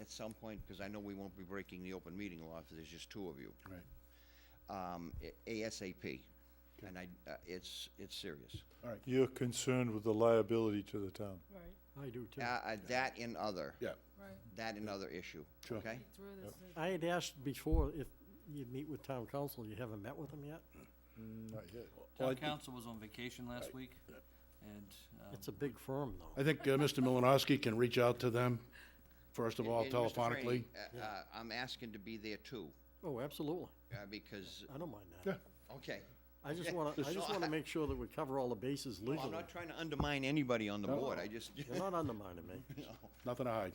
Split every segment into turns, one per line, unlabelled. at some point, because I know we won't be breaking the open meeting law if there's just two of you,
Right.
um, a- ASAP. And I, uh, it's, it's serious.
All right.
You're concerned with the liability to the town.
Right,
I do too.
Uh, uh, That and other,
Yeah.
right.
that and other issue,
Sure.
okay?
He threw this in.
I had asked before if you'd meet with town council, you haven't met with them yet?
Not yet. Well, I
Town
thi-
council was on vacation last week, and, um,
It's a big firm, though.
I think uh, Mr. Malinowski can reach out to them, first of all,
And- and Mr.
telephonically.
Frainie, uh, uh, I'm asking to be there too,
Oh, absolutely.
uh, because,
I don't mind
Yeah.
that.
okay.
I just
Yeah,
wanna, I
so
just wanna
I-
make sure that we cover all the bases
Well, I'm
legally.
not trying to undermine anybody on the board, I just,
You're not undermining me.
Nothing to hide.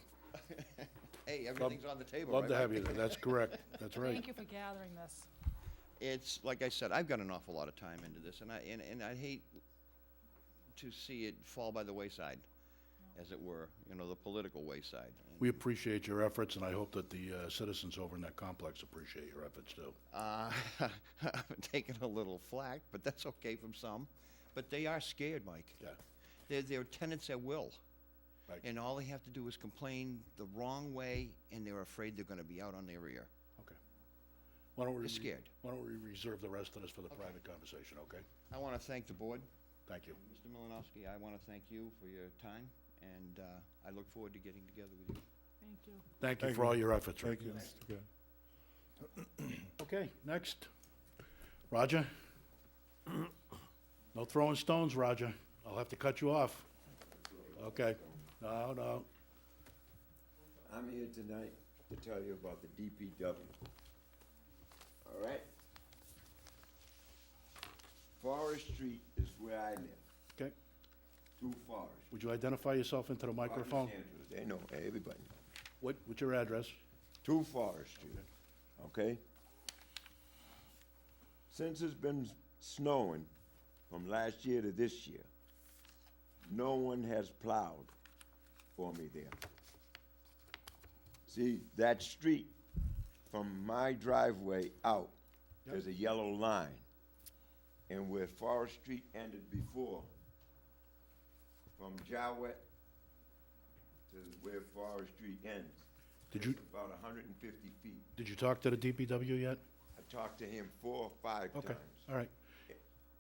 hey, everything's on the table.
Love
right,
to have
Mike?
you there. That's correct. That's right.
Thank you for gathering this.
It's, like I said, I've got an awful lot of time into this, and I, and, and I hate to see it fall by the wayside, as it were, you know, the political wayside.
We appreciate your efforts, and I hope that the uh, citizens over in that complex appreciate your efforts too.
Uh, I've taken a little flack, but that's okay from some, but they are scared, Mike.
Yeah.
They're, they're tenants at will.
Right.
And all they have to do is complain the wrong way, and they're afraid they're gonna be out on their ear.
Okay. Why don't we?
They're
re-
scared.
Why don't we reserve the rest of this for the private conversation, okay?
I wanna thank the board,
Thank you.
Mr. Malinowski, I wanna thank you for your time, and, uh, I look forward to getting together with you.
Thank you.
Thank you
Thank
for
you.
all your efforts, Rick.
Thank you, Mr. Chair.
Okay, next. Roger? No throwing stones, Roger. I'll have to cut you off. Okay. No, no.
I'm here tonight to tell you about the DPW. All right? Forest Street is where I live,
Okay.
through Forest.
Would you identify yourself into the microphone?
They know, everybody.
What, what's your address?
Two Forest Street, okay? Since it's been snowing from last year to this year, no one has plowed for me there. See, that street from my driveway out, there's a yellow line. And where Forest Street ended before, from Jowett to where Forest Street ends,
Did you,
it's About hundred and fifty feet.
did you talk to the DPW yet?
I talked to him four or five
Okay,
times.
all right.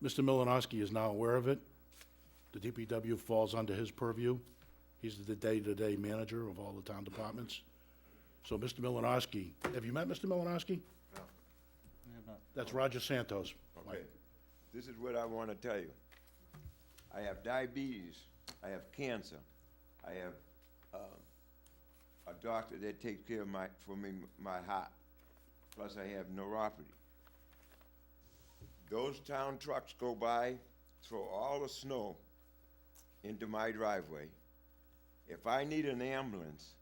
Mr. Malinowski is now aware of it. The DPW falls under his purview. He's the day-to-day manager of all the town departments. So Mr. Malinowski, have you met Mr. Malinowski?
we have not
That's Roger Santos. Mike.
Okay, this is what I want to tell you. I have diabetes, I have cancer, I have, um, a doctor that takes care of my, for me, my heart, plus I have neuropathy. Those town trucks go by, throw all the snow into my driveway. If I need an ambulance,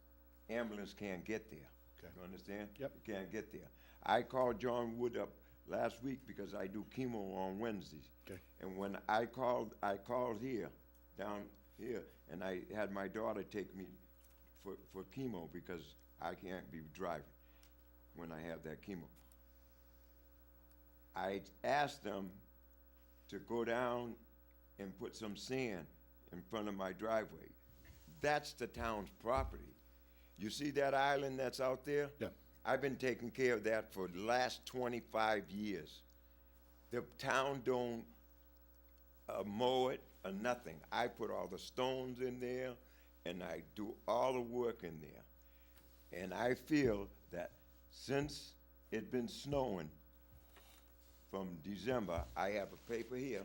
ambulance can't get there.
Okay.
You understand?
Yep.
You Can't get there. I called John Wood up last week because I do chemo on Wednesdays.
Okay.
And when I called, I called here, down here, and I had my daughter take me for, for chemo because I can't be driving when I have that chemo. I asked them to go down and put some sand in front of my driveway. That's the town's property. You see that island that's out there?
Yeah.
I've been taking care of that for the last twenty-five years. The town don't uh, mow it or nothing. I put all the stones in there and I do all the work in there. And I feel that since it been snowing from December, I have a paper here.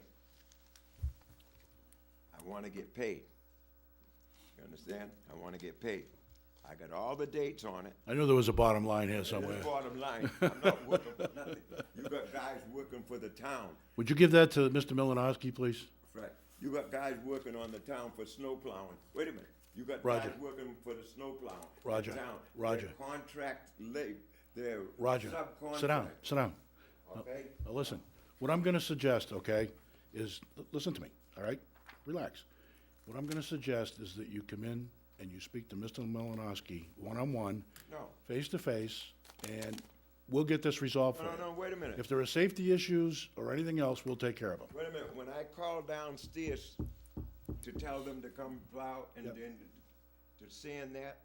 I wanna get paid. You understand? I wanna get paid. I got all the dates on it.
I knew there was a bottom line here
That's
somewhere.
the Bottom line, I'm not working for nothing. You got guys working for the town.
Would you give that to Mr. Malinowski, please?
Right. You got guys working on the town for snow plowing. Wait a minute. You got
Roger.
guys working for the snow plowing. in
Roger.
town.
Roger.
They're Contract lab, they're
Roger, sit down,
subcontract,
sit down.
okay?
Now, Listen, what I'm gonna suggest, okay, is, l- listen to me, all right? Relax. What I'm gonna suggest is that you come in and you speak to Mr. Malinowski one-on-one.
No.
Face-to-face, and we'll get this resolved for
No,
you.
no, no, wait a minute.
If there are safety issues or anything else, we'll take care of them.
Wait a minute, when I called downstairs to tell them to come plow and
Yep.
then to sand that,